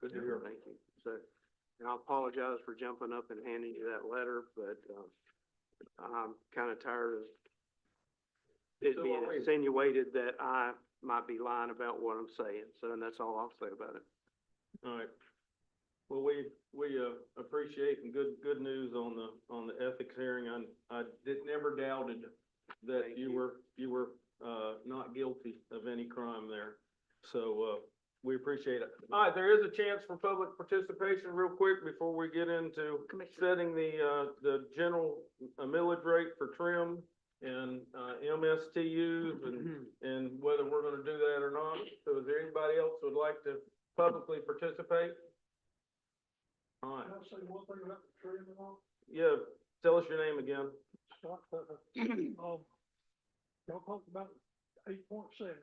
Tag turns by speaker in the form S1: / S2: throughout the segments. S1: Good to hear, thank you. So, and I apologize for jumping up and handing you that letter, but, um, I'm kinda tired of it
S2: So
S1: being
S2: are we.
S1: insinuated that I might be lying about what I'm saying, so, and that's all I'll say about it.
S2: All right. Well, we, we, uh, appreciate and good, good news on the, on the ethics hearing. I, I did, never doubted that
S1: Thank
S2: you
S1: you.
S2: were, you were, uh, not guilty of any crime there. So, uh, we appreciate it. All right, there is a chance for public participation real quick before we get into
S3: Commissioner,
S2: setting the, uh, the general uh, millage rate for trim and, uh, MSTUs and
S1: Mm-hmm.
S2: and whether we're gonna do that or not. So is there anybody else who would like to publicly participate? All right,
S4: Can I say one thing about the tree and the law?
S2: yeah, tell us your name again.
S4: uh, Um, y'all talked about eight point seven.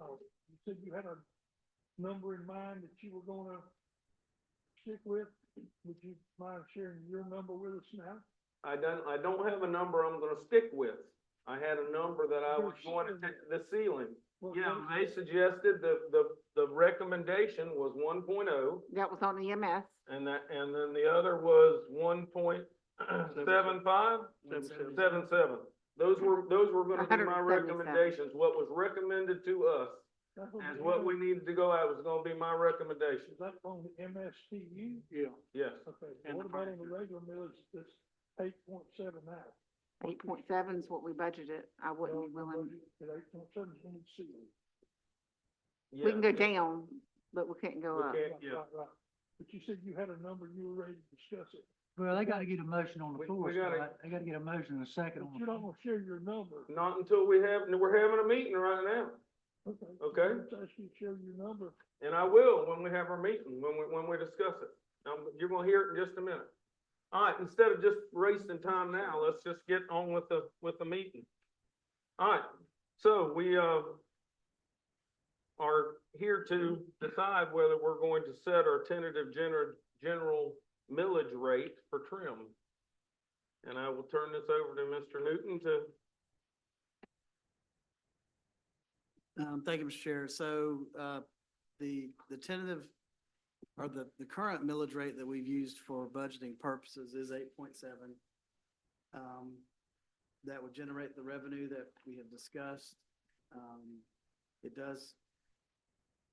S4: Uh, you said you had a number in mind that you were gonna stick with. Would you mind sharing your number with us now?
S2: I don't, I don't have a number I'm gonna stick with. I had a number that I was going to, take- the ceiling.
S1: Oh,
S4: What-
S2: Yeah,
S4: what
S2: they
S4: is it?
S2: suggested the, the, the recommendation was one oh,
S3: that was on E EMS.
S2: and that, and then the other was one point seven five?
S1: Seven seven.
S2: Seven seven. Those were, those were gonna be my
S3: 177.
S2: recommendations, what was recommended to us.
S4: That's on
S2: is
S4: the
S2: what
S4: M-
S2: we needed to go out, was gonna be my recommendation,
S4: Is that on the MSTU?
S1: Yeah.
S2: yes.
S4: Okay,
S1: And
S4: what
S1: the
S4: about on the
S1: furniture.
S4: regular millage, that's eight point seven now?
S3: Eight point seven is what we budgeted. I wouldn't be willing,
S4: At eight point seven, you need to see it.
S3: we can go
S2: Yeah, yeah.
S3: down, but we can't go
S2: We
S3: up.
S2: can't,
S4: Right,
S2: yeah.
S4: right, right. But you said you had a number you were ready to discuss it,
S5: Well, they gotta get a motion on
S2: We-
S5: the floor,
S2: we gotta-
S5: Scott. They gotta get a motion and a second
S4: but
S5: on
S4: you
S5: the
S4: don't
S5: floor.
S4: wanna share your number.
S2: Not until we have, we're having a meeting right now,
S4: Okay.
S2: Okay.
S4: Let's ask you to share your number.
S2: and I will when we have our meeting, when we, when we discuss it. Um, you're gonna hear it in just a minute. All right, instead of just wasting time now, let's just get on with the, with the meeting. All right, so we, uh, are here to decide whether we're going to set our tentative gener- general millage rate for trim. And I will turn this over to Mr. Newton to
S6: Um, thank you, Mr. Chair. So, uh, the, the tentative or the, the current millage rate that we've used for budgeting purposes is eight point seven. Um, that would generate the revenue that we have discussed. Um, it does,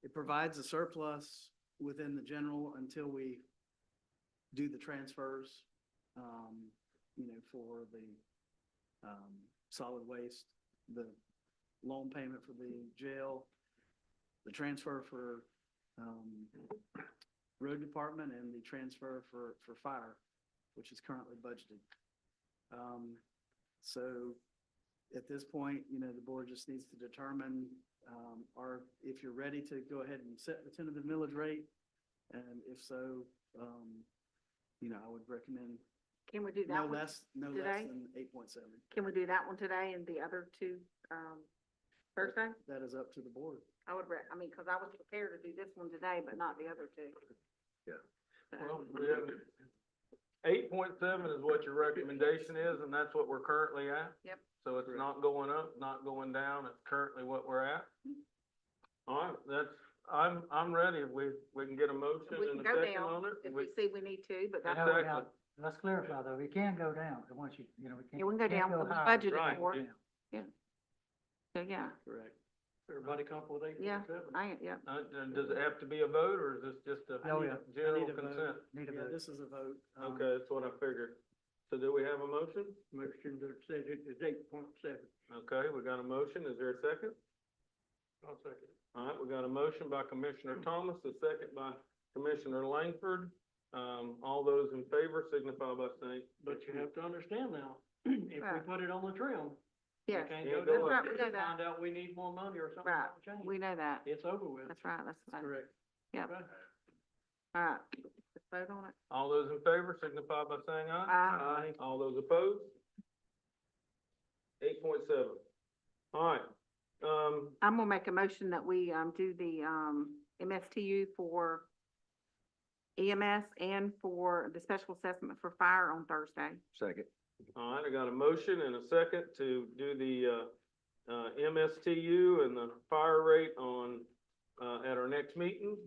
S6: it provides a surplus within the general until we do the transfers, um, you know, for the, um, solid waste, the loan payment for the jail, the transfer for, um, road department and the transfer for, for fire, which is currently budgeted. Um, so at this point, you know, the board just needs to determine, um, or if you're ready to go ahead and set the tentative millage rate. And if so, um, you know, I would recommend
S3: Can we do
S6: no
S3: that one?
S6: less, no less
S3: today?
S6: than eight point seven.
S3: Can we do that one today and the other two, um, Thursday?
S6: That is up to the board.
S3: I would, re- I mean, cause I was prepared to do this one today, but not the other two.
S2: Yeah.
S3: So,
S2: Well, Eight point seven is what your recommendation is, and that's what we're currently at?
S3: Yep.
S2: So it's
S6: Correct.
S2: not going up, not going down, it's currently what we're at?
S3: Mm-hmm.
S2: All right, that's, I'm, I'm ready, if we, we can get a motion
S3: We
S2: and
S3: can
S2: a
S3: go
S2: second
S3: down
S2: on it.
S3: if
S2: We-
S3: we see we need to, but that's,
S2: Exactly.
S3: yeah,
S5: Well, now, Let's clarify though, it can go down, but once you, you know, we can't.
S3: we can go
S5: can't
S3: down, what we
S5: higher.
S3: budgeted
S2: Right,
S3: for,
S2: yeah.
S3: so, yeah,
S6: Correct.
S2: Everybody comfortable with eight
S3: Yeah. I, yeah.
S2: Uh, d- does it have to be a vote, or is this just a
S5: Oh, yeah.
S2: general
S6: need a vote.
S2: consent?
S5: Need a
S6: Yeah,
S5: vote.
S6: this is a vote. um,
S2: Okay, that's what I figured. So do we have a motion?
S4: Motion that said it is eight point seven.
S2: Okay, we got a motion, is there a second?
S4: I'll second.
S2: All right, we got a motion by Commissioner Thomas, a second by Commissioner Langford. Um, all those in favor signify by saying.
S4: But you have to understand now, if we
S3: Right.
S4: put it on the trim, we
S3: Yes,
S4: can't
S2: Can't
S4: go
S2: go
S3: that's
S2: up.
S4: down.
S3: right, we know that,
S4: Find out we need more money or something,
S3: Right.
S4: that'll change.
S3: we know that,
S4: It's over with.
S3: that's right, that's, fine.
S6: Correct.
S4: Right.
S3: alright, let's vote on it.
S2: All those in favor signify by saying aye.
S3: Aye.
S2: All those opposed? Eight point seven. All right, um,
S3: I'm gonna make a motion that we, um, do the, um, MSTU for EMS and for the special assessment for fire on Thursday.
S7: Second.
S2: all right, I got a motion and a second to do the, uh, uh, MSTU and the fire rate on, uh, at our next meeting.